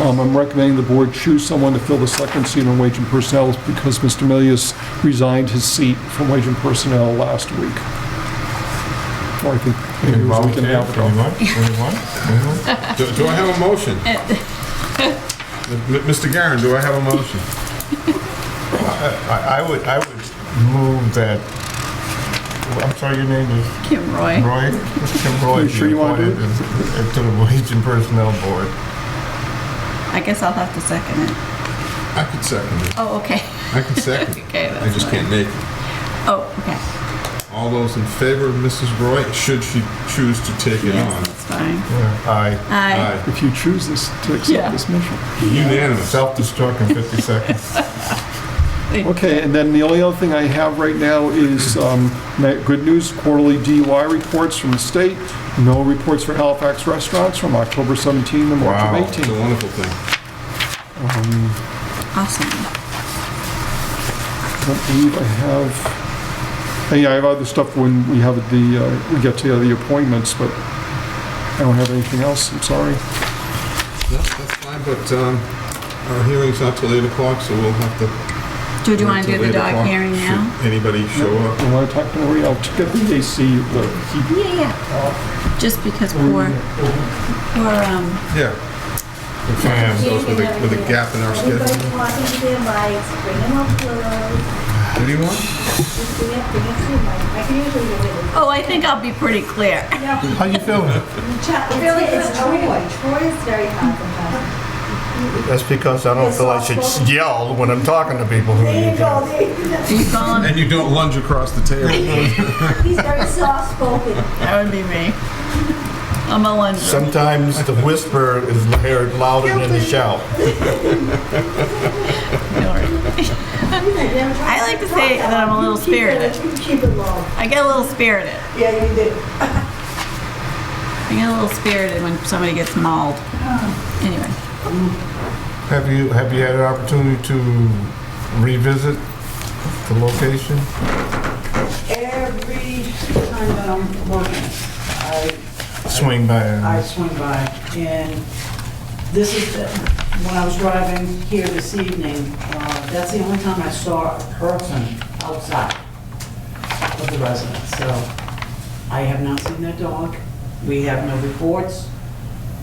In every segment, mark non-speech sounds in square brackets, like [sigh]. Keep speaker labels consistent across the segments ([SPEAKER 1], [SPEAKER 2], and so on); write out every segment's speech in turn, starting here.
[SPEAKER 1] Um, I'm recommending the board choose someone to fill the second seat on Wage and Personnel because Mr. Milius resigned his seat from Wage and Personnel last week. Or I think maybe it was a week and a half ago.
[SPEAKER 2] Anyone? Anyone?
[SPEAKER 3] [laughs]
[SPEAKER 2] Anyone? Do do I have a
[SPEAKER 4] [laughs]
[SPEAKER 2] motion? M- Mr. Garen, do I have a [laughs] motion?
[SPEAKER 3] I I would, I would move that, I'm sorry, your name is
[SPEAKER 4] Kim Roy.
[SPEAKER 3] Roy? Kim Roy.
[SPEAKER 1] You sure you wanna do it?
[SPEAKER 3] be appointed To the Wage and Personnel Board.
[SPEAKER 4] I guess I'll have to second it.
[SPEAKER 2] I could second it.
[SPEAKER 4] Oh, okay. [laughs]
[SPEAKER 2] I can second it.
[SPEAKER 4] Okay,
[SPEAKER 2] I
[SPEAKER 4] that's
[SPEAKER 2] just
[SPEAKER 4] fine.
[SPEAKER 2] can't make it.
[SPEAKER 4] Oh, okay.
[SPEAKER 2] All those in favor of Mrs. Roy, should she choose to take it
[SPEAKER 4] Yes,
[SPEAKER 2] on?
[SPEAKER 4] that's fine.
[SPEAKER 3] Yeah, Aye.
[SPEAKER 4] Aye.
[SPEAKER 2] Aye.
[SPEAKER 1] If you choose this, to
[SPEAKER 4] Yeah.
[SPEAKER 1] accept this mission.
[SPEAKER 2] Unanimous.
[SPEAKER 3] Self-destruct in 50 seconds.
[SPEAKER 1] Okay, and then the only other thing I have right now is, um, ma- good news, quarterly DUI reports from the state, no reports for Halifax restaurants from October 17 to
[SPEAKER 3] Wow.
[SPEAKER 1] March of
[SPEAKER 2] It's a
[SPEAKER 1] 18.
[SPEAKER 2] wonderful thing.
[SPEAKER 4] Awesome.
[SPEAKER 1] I don't believe I have, hey, I have other stuff when we have the, uh, we get to the appointments, but I don't have anything else, I'm sorry.
[SPEAKER 2] No, that's fine, but um, our hearing's not till 8 o'clock, so we'll have to...
[SPEAKER 4] Do you
[SPEAKER 2] wait
[SPEAKER 4] want to do
[SPEAKER 2] till
[SPEAKER 4] the
[SPEAKER 2] 8
[SPEAKER 4] dog
[SPEAKER 2] o'clock.
[SPEAKER 4] hearing
[SPEAKER 2] Should
[SPEAKER 4] now?
[SPEAKER 2] Anybody show up?
[SPEAKER 1] You want to talk to Maria? I'll check the AC, the heat.
[SPEAKER 4] Yeah, yeah. Just because we're, we're, um,
[SPEAKER 2] Yeah. We'll find ourselves with a, with a gap in our schedule.
[SPEAKER 5] Everybody walking to their mics, bring them up close,
[SPEAKER 2] Anyone?
[SPEAKER 5] just bring it, bring it to the mic. I can usually do it.
[SPEAKER 4] oh, I think I'll be pretty clear. [laughs]
[SPEAKER 3] How you feeling?
[SPEAKER 5] Really, it's Troy. Oh, Troy is very hard sometimes.
[SPEAKER 3] That's because I don't feel I should yell when I'm talking to people.
[SPEAKER 5] There you go, there you go.
[SPEAKER 4] Are you calling?
[SPEAKER 2] And you don't lunge across the table.
[SPEAKER 5] He's
[SPEAKER 4] [laughs]
[SPEAKER 5] very soft-spoken.
[SPEAKER 4] That would be me. I'm a lunch.
[SPEAKER 3] Sometimes the whisper is heard louder than the shout.
[SPEAKER 5] I
[SPEAKER 4] like to say that I'm a little spirited.
[SPEAKER 5] Keep it low.
[SPEAKER 4] I get a little spirited.
[SPEAKER 5] Yeah, you do.
[SPEAKER 4] I get a little spirited when somebody gets mauled. Anyway,
[SPEAKER 3] Have you, have you had an opportunity to revisit the location?
[SPEAKER 6] Every time that I'm working, I,
[SPEAKER 3] Swing by. and-
[SPEAKER 6] I swing by, and this is, the- when I was driving here this evening, uh, that's the only time I saw a person outside of the residence, so I have not seen that dog. We have no reports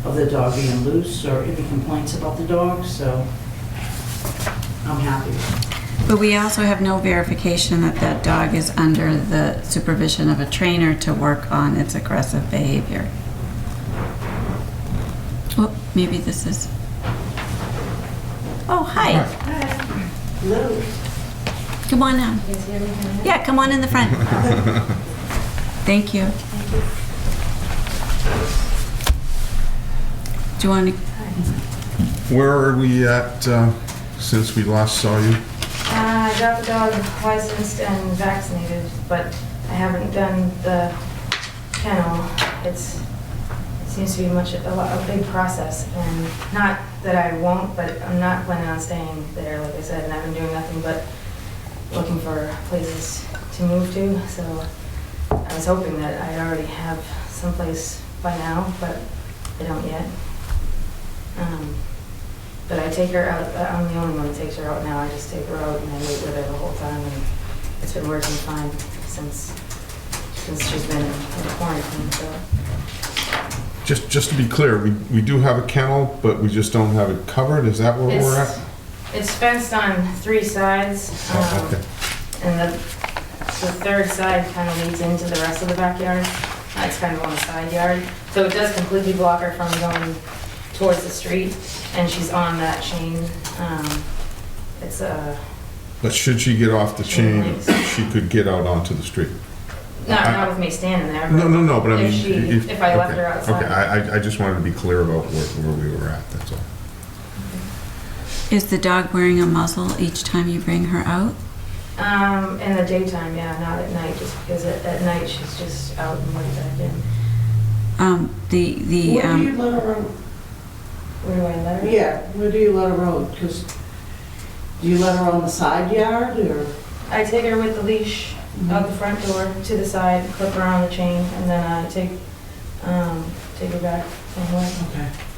[SPEAKER 6] of the dog being loose or any complaints about the dog, so I'm happy.
[SPEAKER 4] but we also have no verification that that dog is under the supervision of a trainer to work on its aggressive behavior. Oh, maybe this is. Oh, hi.
[SPEAKER 6] Lou,
[SPEAKER 4] Come on down. Yeah, come on in the front. Thank you. Do you want to,
[SPEAKER 2] Where are we at uh, since we last saw you?
[SPEAKER 7] Uh, I got the dog licensed and vaccinated, but I haven't done the kennel. It's, it seems to be much, a lot, a big process, and not that I won't, but I'm not planning on staying there, like I said, and I've been doing nothing but looking for places to move to, so I was hoping that I'd already have someplace by now, but I don't yet. Um, but I take her out, uh, I'm the only one that takes her out now, I just take her out and I wait with her the whole time, and it's been working fine since, since she's been in quarantine, so.
[SPEAKER 2] Just, just to be clear, we, we do have a kennel, but we just don't have it covered. Is that where we're
[SPEAKER 7] It's-
[SPEAKER 4] uh,
[SPEAKER 2] at?
[SPEAKER 7] It's fenced on three sides,
[SPEAKER 2] Oh,
[SPEAKER 7] um,
[SPEAKER 2] okay.
[SPEAKER 7] and the, the third side kind of leads into the rest of the backyard. Uh, It's kind of on the side yard, so it does completely block her from going towards the street, and she's on that chain. Um, It's a,
[SPEAKER 2] But should she get off the chain,
[SPEAKER 7] Right.
[SPEAKER 2] she could get out onto the street?
[SPEAKER 7] not,
[SPEAKER 2] I-
[SPEAKER 7] not with me standing there.
[SPEAKER 2] No, no, no, but I mean...
[SPEAKER 7] If she- if I left
[SPEAKER 2] okay,
[SPEAKER 7] her outside.
[SPEAKER 2] Okay, I, I- I just wanted to be clear about where, where we were at, that's all.
[SPEAKER 4] is the dog wearing a muzzle each time you bring her out?
[SPEAKER 7] Um, in the daytime, yeah, not at night, just because at, at night she's just out and right back in.
[SPEAKER 4] Um, the, the,
[SPEAKER 6] where do you
[SPEAKER 4] um,
[SPEAKER 6] let her out?
[SPEAKER 7] Where do I let her?
[SPEAKER 6] Yeah, where do you let her out? Because do you let her on the side yard or?
[SPEAKER 7] I take her with the leash out the front door to the side, clip her on the chain, and then I take, um, take her back somewhere.
[SPEAKER 6] Okay.